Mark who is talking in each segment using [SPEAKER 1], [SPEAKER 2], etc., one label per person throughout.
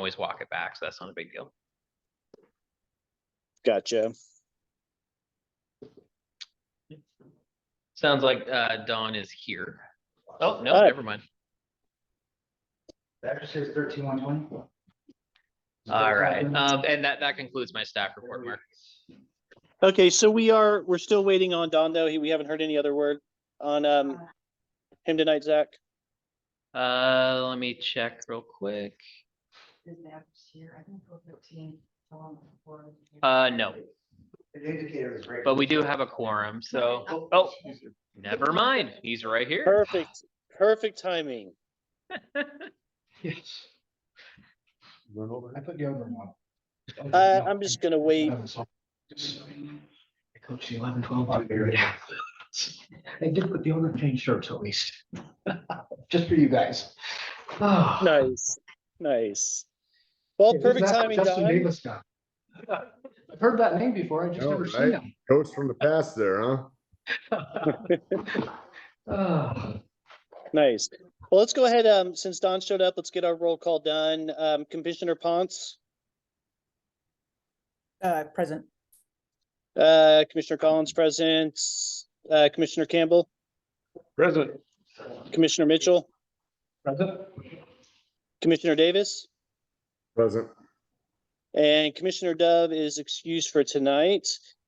[SPEAKER 1] always walk it back, so that's not a big deal.
[SPEAKER 2] Gotcha.
[SPEAKER 1] Sounds like uh Don is here. Oh, no,
[SPEAKER 2] Hi.
[SPEAKER 1] never mind.
[SPEAKER 3] That just says thirteen one twenty.
[SPEAKER 1] All right, um, and that that concludes my staff report, Mark.
[SPEAKER 2] Okay, so we are, we're still waiting on Don though. He- We haven't heard any other word on
[SPEAKER 4] Uh,
[SPEAKER 2] um him tonight, Zach.
[SPEAKER 1] Uh, let me check real quick. Uh, no,
[SPEAKER 3] The indicator is right.
[SPEAKER 1] but we do have a quorum, so, oh, never mind, he's right here.
[SPEAKER 2] Perfect, perfect timing.
[SPEAKER 3] Yes.
[SPEAKER 5] Run over.
[SPEAKER 3] I put deodorant on.
[SPEAKER 2] Uh, I'm just gonna wait.
[SPEAKER 3] I coached the eleven twelve on there. I did put the other change shirts at least. Just for you guys. No.
[SPEAKER 2] Nice, nice. Well, perfect timing, Don.
[SPEAKER 3] I've heard that name before, I just
[SPEAKER 5] No,
[SPEAKER 3] never seen him.
[SPEAKER 5] Coach from the past there, huh?
[SPEAKER 3] Ah.
[SPEAKER 2] Nice. Well, let's go ahead, um, since Don showed up, let's get our roll call done. Um, Commissioner Ponce,
[SPEAKER 4] Uh, present.
[SPEAKER 2] uh, Commissioner Collins present, uh, Commissioner Campbell,
[SPEAKER 5] Present.
[SPEAKER 2] Commissioner Mitchell,
[SPEAKER 3] Present?
[SPEAKER 2] Commissioner Davis,
[SPEAKER 5] Present.
[SPEAKER 2] and Commissioner Dove is excused for tonight.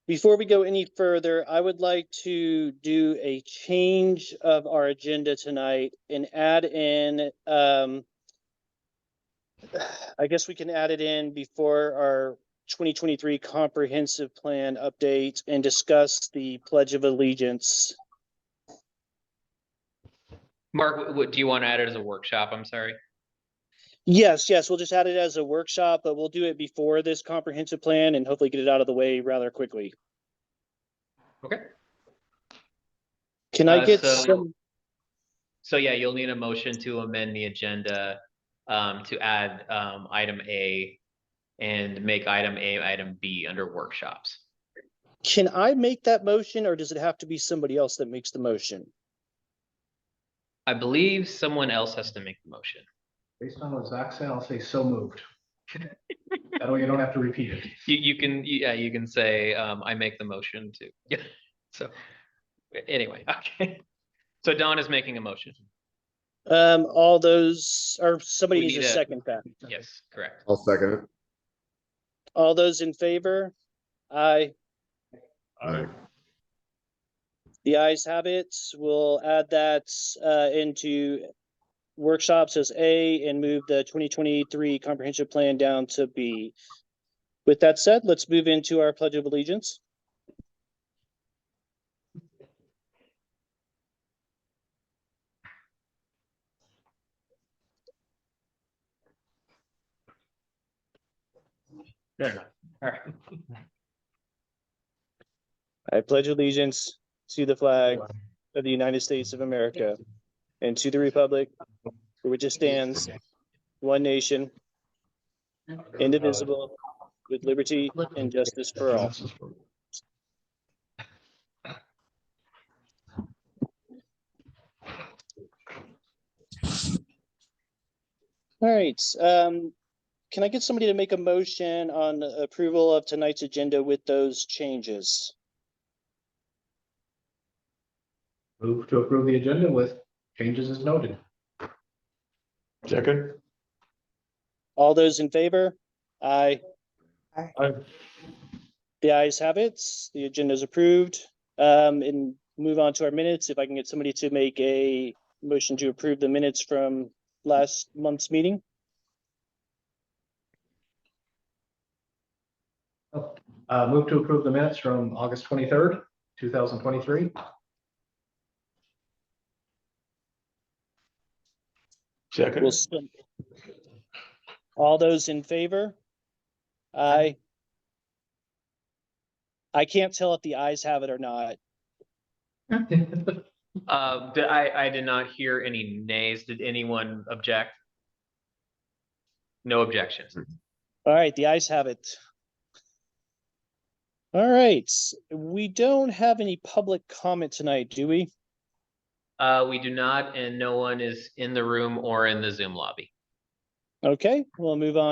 [SPEAKER 2] Before we go any further, I would like to do a change of our agenda tonight and add in, um, I guess we can add it in before our twenty twenty-three comprehensive plan update and discuss the pledge of allegiance.
[SPEAKER 1] Mark, what, do you want to add it as a workshop? I'm sorry.
[SPEAKER 2] Yes, yes, we'll just add it as a workshop, but we'll do it before this comprehensive plan and hopefully get it out of the way rather quickly.
[SPEAKER 1] Okay.
[SPEAKER 2] Can I
[SPEAKER 1] Uh,
[SPEAKER 2] get
[SPEAKER 1] so-
[SPEAKER 2] some?
[SPEAKER 1] So yeah, you'll need a motion to amend the agenda um to add um item A and make item A item B under workshops.
[SPEAKER 2] Can I make that motion or does it have to be somebody else that makes the motion?
[SPEAKER 1] I believe someone else has to make the motion.
[SPEAKER 3] Based on what Zach said, I'll say so moved. That way you don't have to repeat it.
[SPEAKER 1] You, you can, yeah, you can say, um, I make the motion to, yeah, so, anyway, okay. So Don is making a motion.
[SPEAKER 2] Um, all those, or somebody
[SPEAKER 1] We
[SPEAKER 2] needs a
[SPEAKER 1] need a-
[SPEAKER 2] second that.
[SPEAKER 1] Yes, correct.
[SPEAKER 5] I'll second it.
[SPEAKER 2] All those in favor? Aye.
[SPEAKER 5] Aye.
[SPEAKER 2] The ayes have it. We'll add that uh into workshops as A and move the twenty twenty-three comprehensive plan down to B. With that said, let's move into our pledge of allegiance.
[SPEAKER 1] Fair enough. All right.
[SPEAKER 2] I pledge allegiance to the flag of the United States of America and to the republic for which it stands, one nation, indivisible, with liberty and justice for all. All right, um, can I get somebody to make a motion on the approval of tonight's agenda with those changes?
[SPEAKER 3] Move to approve the agenda with changes as noted.
[SPEAKER 5] Second.
[SPEAKER 2] All those in favor? Aye.
[SPEAKER 5] Aye.
[SPEAKER 2] The ayes have it. The agenda is approved. Um, and move on to our minutes. If I can get somebody to make a motion to approve the minutes from last month's meeting.
[SPEAKER 3] Uh, move to approve the minutes from August twenty-third, two thousand twenty-three.
[SPEAKER 2] We'll still- All those in favor? Aye. I can't tell if the ayes have it or not.
[SPEAKER 1] Uh, did I, I did not hear any nays. Did anyone object? No objections.
[SPEAKER 2] All right, the ayes have it. All right, we don't have any public comment tonight, do we?
[SPEAKER 1] Uh, we do not, and no one is in the room or in the Zoom lobby.
[SPEAKER 2] Okay, we'll move on